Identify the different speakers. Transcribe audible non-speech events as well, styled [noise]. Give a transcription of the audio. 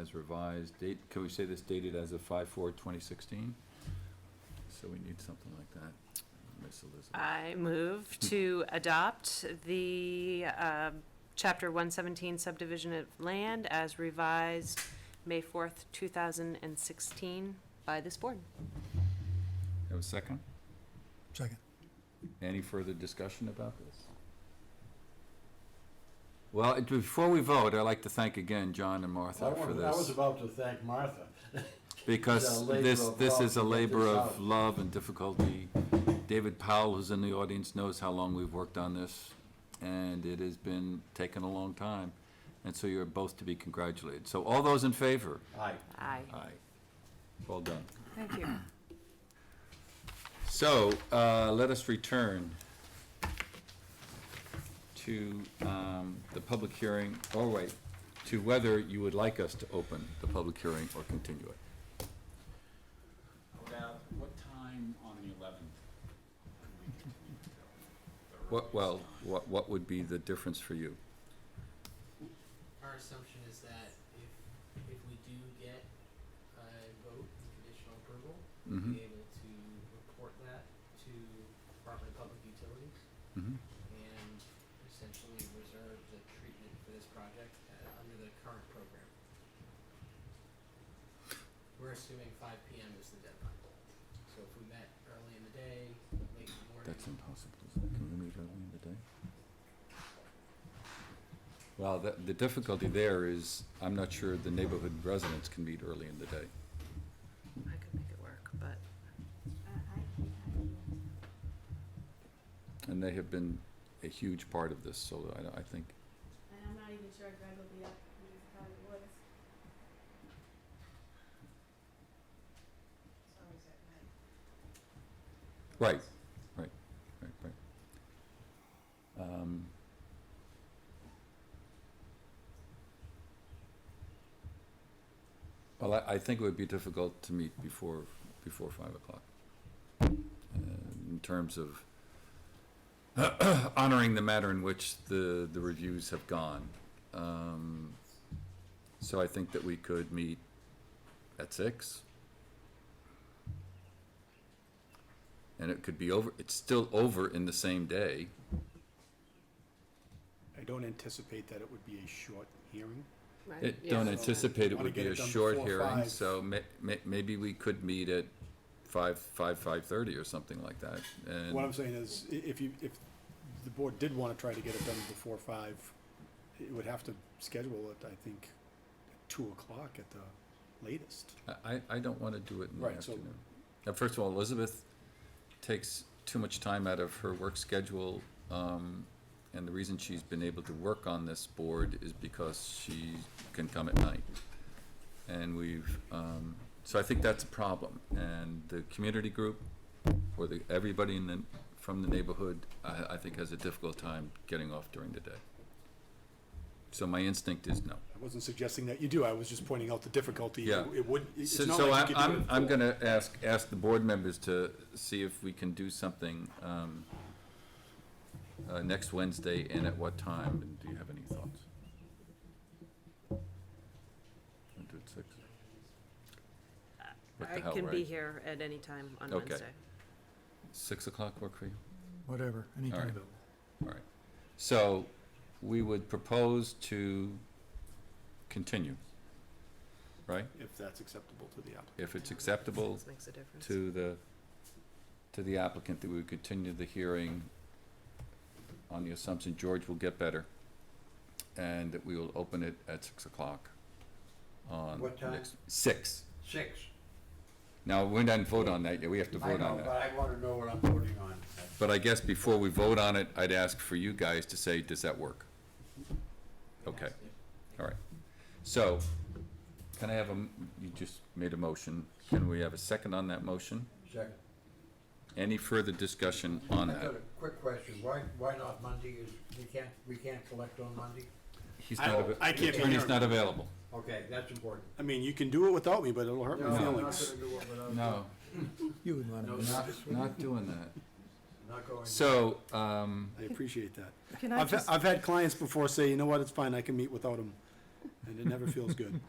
Speaker 1: as revised, date, can we say this dated as of five four twenty sixteen? So we need something like that, Miss
Speaker 2: Uh,
Speaker 1: Elizabeth.
Speaker 3: I move
Speaker 1: Hmm.
Speaker 3: to adopt the um, Chapter 117 subdivision of land as revised May 4th, 2016 by this board.
Speaker 1: Have a second?
Speaker 4: Second.
Speaker 1: Any further discussion about this? Well, it- before we vote, I'd like to thank again John and
Speaker 2: I
Speaker 1: Martha for
Speaker 2: wanted- I was
Speaker 1: this,
Speaker 2: about to thank Martha. It's
Speaker 1: because
Speaker 2: a labor
Speaker 1: this,
Speaker 2: of
Speaker 1: this
Speaker 2: love
Speaker 1: is a
Speaker 2: to get
Speaker 1: labor
Speaker 2: this
Speaker 1: of
Speaker 2: out.
Speaker 1: love and difficulty. David Powell, who's in the audience, knows how long we've worked on this, and it has been taking a long time. And so you're both to be congratulated. So all those in favor?
Speaker 2: Aye.
Speaker 3: Aye.
Speaker 5: Uh,
Speaker 1: Aye. Well done.
Speaker 5: [clears throat]
Speaker 3: Thank you.
Speaker 1: So, uh, let us return to, um, the public hearing, or wait, to whether you would like us to open the public hearing or continue it.
Speaker 6: About what time on the eleventh?
Speaker 1: What, well, what, what would be the difference for you?
Speaker 7: Our assumption is that if, if we do get a vote, and conditional approval, we'll
Speaker 1: Mhm,
Speaker 7: be able to report that to Department of Public Utilities
Speaker 1: mhm.
Speaker 7: and essentially reserve the treatment for this project uh, under the current program. We're assuming five PM is the deadline. So if we met early in the day, late in the morning,
Speaker 1: That's impossible. isn't it? Can we meet early in the day? Well, the, the difficulty there is, I'm not sure the neighborhood residents can meet early in the day.
Speaker 3: I could make it work, but
Speaker 8: Uh,
Speaker 1: And they have been a huge part of this, so I, I think
Speaker 8: And I'm not even sure Greg will be up. He probably was. It's always at night.
Speaker 1: Right, right, right, right. Um, Well, I, I think it would be difficult to meet before, before five o'clock. uh, In terms of [clears throat] honoring the matter in which the, the reviews have gone. Um, So I think that we could meet at six. and it could be over, it's still over in the same day.
Speaker 9: I don't anticipate that it would be a short hearing.
Speaker 3: Right,
Speaker 1: It,
Speaker 3: yeah.
Speaker 1: don't anticipate it
Speaker 9: Wanna
Speaker 1: would be
Speaker 9: get it
Speaker 1: a
Speaker 9: done
Speaker 1: short
Speaker 9: before
Speaker 1: hearing,
Speaker 9: five.
Speaker 1: so ma- ma- maybe we could meet at five, five, five-thirty or something like that,
Speaker 9: What I'm
Speaker 1: and,
Speaker 9: saying is, i- if you, if the board did wanna try to get it done before five, it would have to schedule it, I think, at two o'clock at the latest.
Speaker 1: I, I don't wanna do it in the
Speaker 9: Right, so-
Speaker 1: afternoon. Now, first of all, Elizabeth takes too much time out of her work schedule, um, and the reason she's been able to work on this board is because she can come at night. And we've, um, so I think that's a problem, and the community group, or the, everybody in the, from the neighborhood, I, I think has a difficult time getting off during the day. So my instinct is no.
Speaker 9: I wasn't suggesting that you do, I was just pointing out the difficulty.
Speaker 1: Yeah.
Speaker 9: It would, it's
Speaker 1: So,
Speaker 9: not
Speaker 1: so
Speaker 9: like
Speaker 1: I-
Speaker 9: you could do it
Speaker 1: I'm,
Speaker 9: at
Speaker 1: I'm
Speaker 9: four.
Speaker 1: gonna ask, ask the board members to see if we can do something, um, uh, next Wednesday and at what time, and do you have any thoughts? Wanna do it six? What the
Speaker 3: I
Speaker 1: hell,
Speaker 3: can be
Speaker 1: right?
Speaker 3: here at any time on
Speaker 1: Okay.
Speaker 3: Wednesday.
Speaker 1: Six o'clock work for you?
Speaker 4: Whatever,
Speaker 1: All
Speaker 4: anytime.
Speaker 1: right. All right. So, we would propose to continue, right?
Speaker 9: If that's acceptable to the applicant.
Speaker 1: If it's acceptable
Speaker 3: This Makes a difference.
Speaker 1: to the, to the applicant that we would continue the hearing on the assumption George will get better, and that we will open it at six o'clock on.
Speaker 2: What time?
Speaker 1: next- Six.
Speaker 2: Six.
Speaker 1: Now, we didn't vote on that yet, we have to
Speaker 2: I
Speaker 1: vote
Speaker 2: know,
Speaker 1: on
Speaker 2: but
Speaker 1: that.
Speaker 2: I wanna know what I'm voting on.
Speaker 1: But I guess before we vote on it, I'd ask for you guys to say, does that work? Okay,
Speaker 7: that's it.
Speaker 1: all right. So, can I have a, m- you just made a motion, can we have a second on that motion?
Speaker 2: Second.
Speaker 1: Any further discussion on
Speaker 2: I
Speaker 1: that?
Speaker 2: got a quick question. Why, why not Monday is, we can't, we can't collect on Monday?
Speaker 1: He's
Speaker 9: I-
Speaker 1: not, ava-
Speaker 9: I can't be
Speaker 1: attorney's
Speaker 9: here.
Speaker 1: not available.
Speaker 2: Okay, that's important.
Speaker 9: I mean, you can do it without me, but it'll hurt
Speaker 2: No,
Speaker 9: my
Speaker 2: I'm not
Speaker 9: feelings.
Speaker 2: gonna do it without-
Speaker 1: No,
Speaker 4: You would want
Speaker 2: No,
Speaker 4: to.
Speaker 2: not,
Speaker 1: not doing that.
Speaker 2: not going.
Speaker 1: So, um,
Speaker 9: I appreciate that.
Speaker 5: Can I
Speaker 9: I've,
Speaker 5: just
Speaker 9: I've had clients before say, you know what, it's fine, I can meet without them, and it never feels good.